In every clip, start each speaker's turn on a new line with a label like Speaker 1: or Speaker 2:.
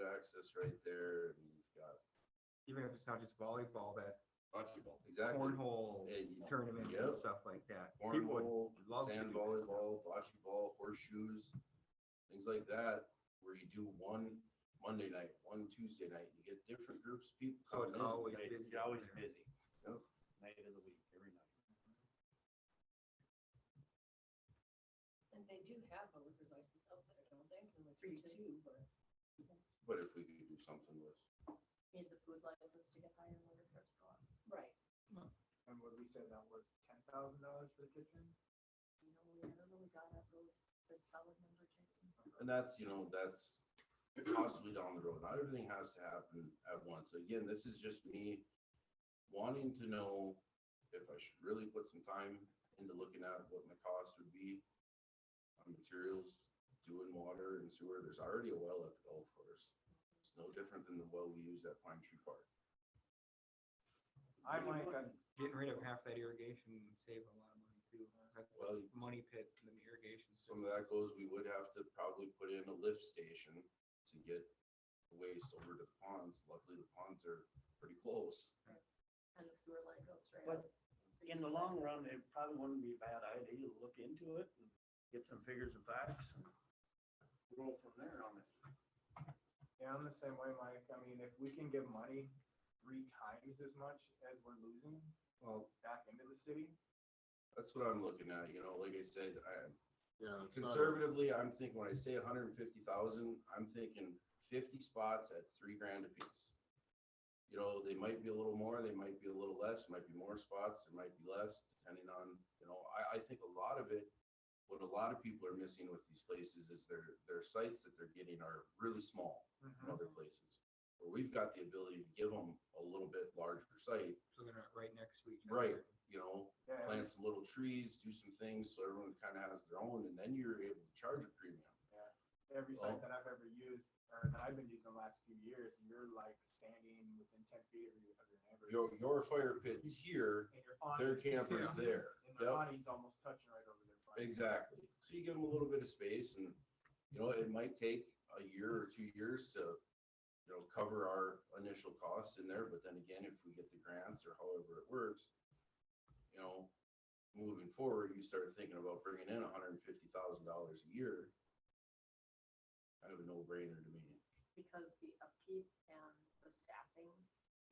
Speaker 1: right there, and you've got
Speaker 2: even if it's not just volleyball, that
Speaker 1: bocce ball, exactly.
Speaker 2: cornhole
Speaker 1: Yeah, you-
Speaker 2: tournaments
Speaker 1: Yep.
Speaker 2: and stuff like that. People would
Speaker 1: Cornhole,
Speaker 2: love to
Speaker 1: sand
Speaker 2: do that stuff.
Speaker 1: volleyball, bocce ball, horseshoes, things like that, where you do one Monday night, one Tuesday night, you get different groups of people.
Speaker 2: So Oh, it's
Speaker 1: coming in.
Speaker 2: always
Speaker 3: Right,
Speaker 2: busy.
Speaker 3: You're always
Speaker 2: over there.
Speaker 3: busy.
Speaker 1: Yep.
Speaker 3: Night of the week, every night.
Speaker 4: And they do have a liquor license up there, don't they? It's in the three two, but
Speaker 1: But if we could do something with,
Speaker 4: need the food license to get higher liquor cards go up. Right.
Speaker 5: And what we said that was ten thousand dollars for the kitchen?
Speaker 4: You know, we never really got up really said solid number, Jason.
Speaker 1: and that's, you know, that's possibly down the road, not everything has to happen at once, again, this is just me wanting to know if I should really put some time into looking at what my cost would be on materials, doing water and sewer, there's already a well at the golf course. It's no different than the well we use at Pine Tree Park.
Speaker 5: I'm like, I'm,
Speaker 2: Getting rid of half that irrigation would save a lot of money too. That's a
Speaker 1: Well, you-
Speaker 2: money pit and the irrigation.
Speaker 1: Some
Speaker 2: system.
Speaker 1: of that goes, we would have to probably put in a lift station to get the waste over to the ponds, luckily the ponds are pretty close.
Speaker 4: And the sewer line goes straight
Speaker 3: But
Speaker 4: up.
Speaker 3: In the long run, it probably wouldn't be a bad idea to look into it and get some figures and facts and roll from there on it.
Speaker 5: yeah, I'm the same way, Mike. I mean, if we can give money three times as much as we're losing
Speaker 2: Well,
Speaker 5: back into the city,
Speaker 1: That's what I'm looking at, you know, like I said, I,
Speaker 6: Yeah. it's not a-
Speaker 1: conservatively, I'm thinking, when I say hundred and fifty thousand, I'm thinking fifty spots at three grand apiece. You know, they might be a little more, they might be a little less, might be more spots, there might be less, depending on, you know, I, I think a lot of it, what a lot of people are missing with these places is their, their sites that they're getting are really small from
Speaker 6: Mm-hmm.
Speaker 1: other places. Where we've got the ability to give them a little bit larger site,
Speaker 2: so they're not right next to each other.
Speaker 1: right, you know,
Speaker 5: yeah,
Speaker 1: plant some little trees, do some things, so everyone kind of has their own, and then you're able to charge a premium.
Speaker 5: every
Speaker 1: Well-
Speaker 5: site that I've ever used, or that I've been using the last few years, you're like standing within ten feet of your, of your neighbor.
Speaker 1: Your, your fire pit's here,
Speaker 5: And your awning-
Speaker 1: their camper's
Speaker 2: Yeah.
Speaker 1: there.
Speaker 5: And the
Speaker 1: Yep,
Speaker 5: awning's almost touching right over their. front.
Speaker 1: exactly. So you give them a little bit of space and, you know, it might take a year or two years to, you know, cover our initial costs in there, but then again, if we get the grants or however it works, you know, moving forward, you start thinking about bringing in hundred and fifty thousand dollars a year. Kind of a no-brainer to me.
Speaker 4: Because the upkeep and the staffing,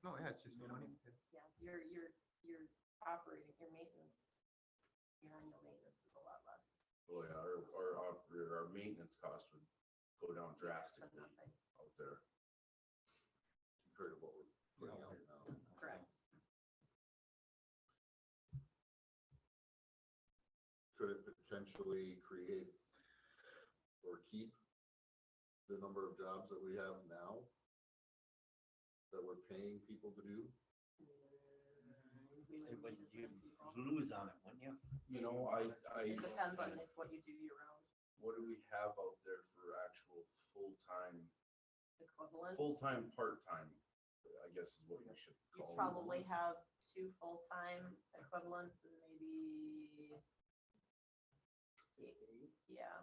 Speaker 2: No, Oh, yeah, it's just a money pit.
Speaker 4: yeah, your, your, your operating, your maintenance, your annual maintenance is a lot less.
Speaker 1: Oh yeah, our, our, oper- our maintenance cost would go down
Speaker 4: So
Speaker 1: drastically
Speaker 4: nothing.
Speaker 1: out there. Compared to what we're putting out now.
Speaker 4: Correct.
Speaker 6: Could it potentially create or keep the number of jobs that we have now? That we're paying people to do?
Speaker 4: We would
Speaker 3: But
Speaker 4: need as
Speaker 3: you
Speaker 4: many people.
Speaker 3: lose on it, wouldn't you?
Speaker 1: You know, I, I,
Speaker 4: It depends on
Speaker 1: I-
Speaker 4: if what you do year round,
Speaker 1: what do we have out there for actual full-time,
Speaker 4: equivalence.
Speaker 1: full-time, part-time? I guess is what we should
Speaker 4: You
Speaker 1: call them.
Speaker 4: probably have two full-time equivalents and maybe. Yeah,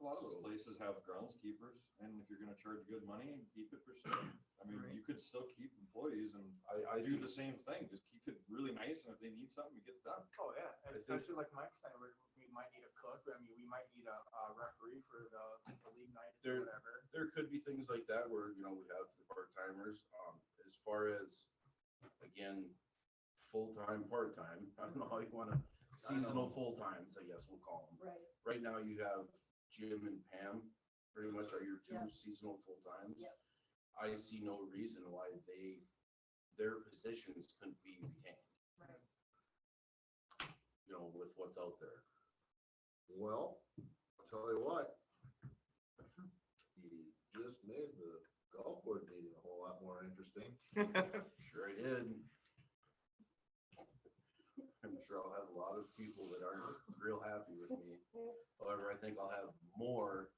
Speaker 7: A lot of those places have groundskeepers, and if you're gonna charge good money, keep it for sale. I mean,
Speaker 2: Right.
Speaker 7: you could still keep employees and
Speaker 1: I, I
Speaker 7: do
Speaker 1: do
Speaker 7: the same thing, just keep it really nice, and if they need something, it gets done.
Speaker 5: Oh, yeah,
Speaker 1: I
Speaker 5: and
Speaker 1: think-
Speaker 5: especially like Mike said, we, we might need a cook, I mean, we might need a, a referee for the, the league nights
Speaker 1: There-
Speaker 5: or whatever.
Speaker 1: there could be things like that where, you know, we have the part-timers, um, as far as, again, full-time, part-time, I don't know how you wanna, seasonal full-times, I guess we'll call them.
Speaker 4: right,
Speaker 1: Right now you have Jim and Pam, pretty much are your two
Speaker 4: Yeah.
Speaker 1: seasonal full-times.
Speaker 4: Yep.
Speaker 1: I see no reason why they, their positions couldn't be retained,
Speaker 4: right.
Speaker 1: you know, with what's out there.
Speaker 6: Well, I'll tell you what. You just made the golf board meeting a whole lot more interesting.
Speaker 1: Sure I did. I'm sure I'll have a lot of people that aren't real happy with me. However, I think I'll have more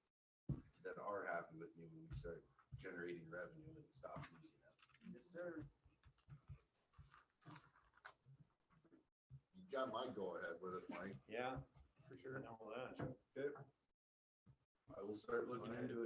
Speaker 1: that are happy with me when we start generating revenue and stop losing it.
Speaker 5: Yes, sir.
Speaker 6: You got my go ahead with it, Mike.
Speaker 3: Yeah. For sure. Know that.
Speaker 1: I will start looking into it.